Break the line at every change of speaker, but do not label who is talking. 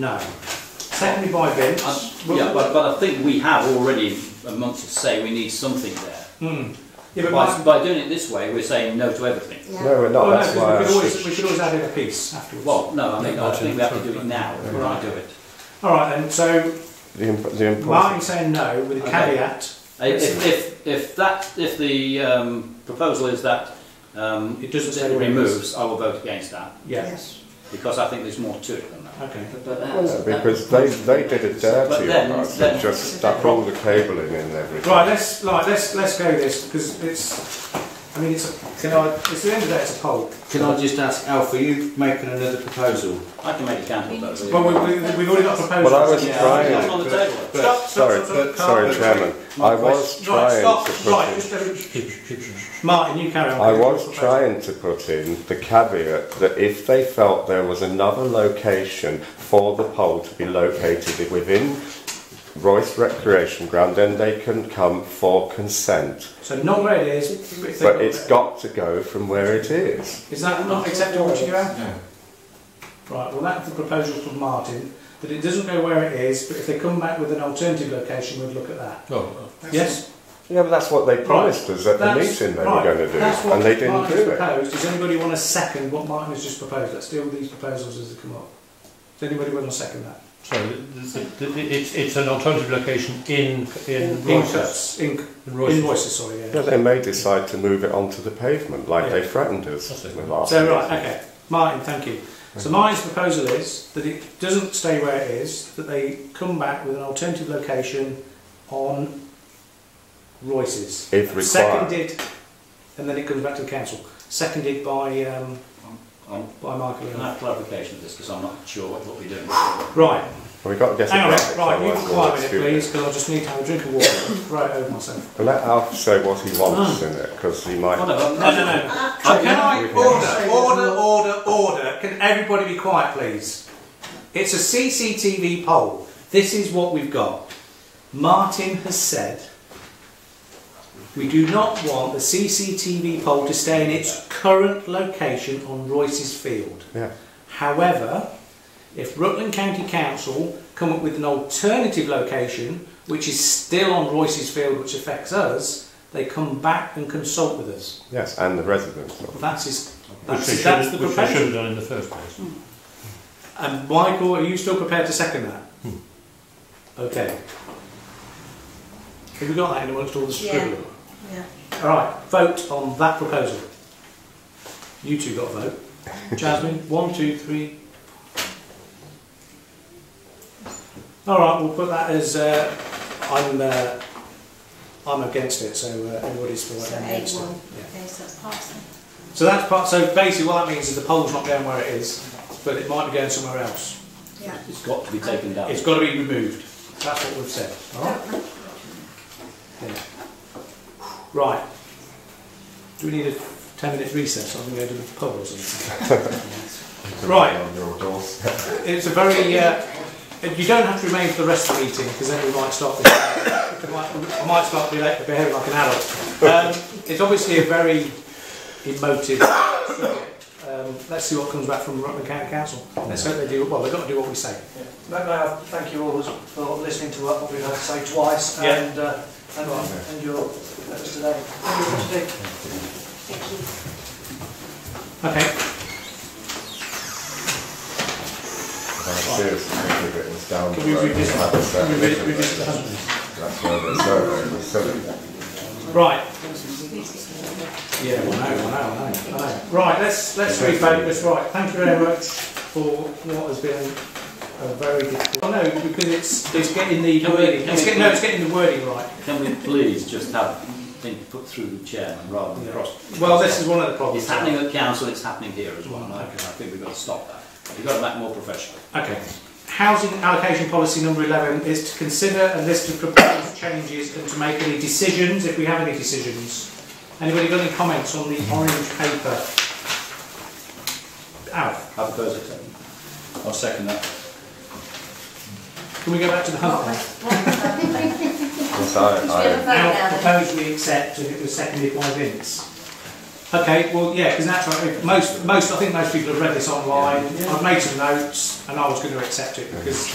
No. Seconded by
I-
Vince.
Um, Uh, Yeah, but, but I think we have already amongst us say we need something there.
Hmm. Yeah, but
By,
my-
by doing it this way, we're saying no to everything.
Yeah.
No, we're not.
well, Oh, no,
Oh, That's why.
because we could
I-
always, we could always add in a piece afterwards.
Well, no, I mean, I
Imagine.
think we have to do it now, if we're going to do it.
All right then, so
The, imp- the important.
Martin saying no with a
Okay.
caveat.
If, if, if that, if the um, proposal is that um,
It doesn't say
it
where it is.
removes, I will vote against that,
Yes.
because I think there's more to it than that.
Okay.
Yeah, uh, because they, they did it
But
dirty
then-
on us
then-
and just stuck all the cabling in and everything.
Right, let's like let's let's go this because it's. I mean, it's. A, can I? It's the end of that. It's a poll.
Can I just ask, Alf, are you making another proposal?
I can make a counter vote.
Well, we, we, we've already got proposals.
Well, I was
Yeah.
trying-
It's on the table.
Stop, stop,
Sorry,
stop, stop,
sorry,
calm
Chairman.
my
I was
down. Right,
trying
stop.
to put
Right,
in.
just let me- Martin, you carry on.
I
with your
was
proposal.
trying to put in the caveat that if they felt there was another location for the pole to be located within Royce Recreation Ground, then they can come for consent.
So not where it is. if they
But
got
it's
it.
got to go from where it is.
Is that not acceptable to you? Anne? Right, well, that's the proposal from Martin, that it doesn't go where it is, but if they come back with an alternative location, we'd look at that.
Oh,
yes?
Yeah, but that's what they promised us at the
That's-
meeting they
right,
were going to do,
that's what
and they didn't
Martin's
do it.
proposed. Does anybody want to second what Martin has just proposed? Let's deal with these proposals as they come up. Does anybody want to second that?
so it's, it's an alternative location in, in Royces.
Incomes, inc-
In Royces.
invoices, sorry,
No,
yeah.
they may decide to move it onto the pavement like
Yeah.
they threatened us
That's it.
with last
So,
meeting.
right, okay, Martin, thank you. So Martin's proposal is that it doesn't stay where it is, that they come back with an alternative location on Royce's.
If required.
Seconded, and then it comes back to the council. Seconded by um,
Um,
by Michael.
Can
and
I
I.
have clarification of this, because I'm not sure what we're doing.
Right,
We've got to get
hang
it
on, right,
right.
right, you can
otherwise
quiet
we'll
a
look
minute,
stupid.
please, because I just need to have a drink of water right over myself.
Well, let Alf say what he
Ah.
wants in it, because he might.
Whatever.
No, no, no. So can I order, order, order, order? Can everybody be quiet, please? It's a CCTV poll. This is what we've got. Martin has said we do not want the CCTV poll to stay in its current location on Royce's Field.
Yeah.
However, if Rutland County Council come up with an alternative location, which is still on Royce's Field, which affects us, they come back and consult with us.
Yes, and the residents.
Well, That's his.
Which
That's,
they should,
that's the
which they should have
proposal.
done in the first place.
And Michael, are you still prepared to second that?
Hmm.
Okay. Have you got that in amongst all the
Yeah.
scribbling?
Yeah.
All right, vote on that proposal. You two got a vote. Jasmine, one, two, three. All right, we'll put that as uh, I'm. Uh, I'm against it, so uh, everybody's for
So
it. I'm
eight
against it.
one.
Yeah.
Okay, so that's passed.
So that's part. So basically, what that means is the poll's not going where it is, but it might be going somewhere else.
Yeah.
It's got to be taken down.
It's got to be removed. That's what we've said. All right. Yeah. Right. Do we need a ten-minute recess? I'm going to go to the pub or something. right.
On your doors.
It's a very. Uh, you don't have to remain for the rest of the meeting because then we might start. behaving- we might, I might start behaving behaving like an adult. Um, it's obviously a very emotive. subject. Um, let's see what comes back from Rutland County Council. Let's hope they do. Well, they've got to do what we say.
May may I thank you all for listening to what we've had to say twice
Yeah.
and, uh, and, and your letters today. Thank you for today.
Thank you.
Okay.
Seriously, if it was down
Can we
the road,
revisit-
like I said,
can we re-
literally,
revisit that?
That's where the survey was silly.
Right. Yeah, I know, I know, I know, I know. Right, let's, let's refocus, right, thank you very much for what has been a very difficult, I know, because it's, it's getting the
Can we-
wording,
can
it's
we-
getting, no, it's getting the wording right.
Can we please just have things put through the chairman rather than cross?
Well, this is one of the problems.
It's happening at council, it's happening here as well, and I I
Okay.
think we've got to stop that. We've got to make more professional.
Okay. Housing allocation policy number 11 is to consider a list of proposed changes and to make any decisions, if we have any decisions. Anybody got any comments on the orange paper? Alf,
I propose acceptance. I'll second that.
can we go back to the
What
hump?
was, what was that? Should we have
Yes,
a
I,
vote now
I,
Now
then?
proposed we accept and it was seconded by Vince. Okay, well, yeah, because naturally, most, most, I think most people have read this online. I've made some notes and I was going to accept it because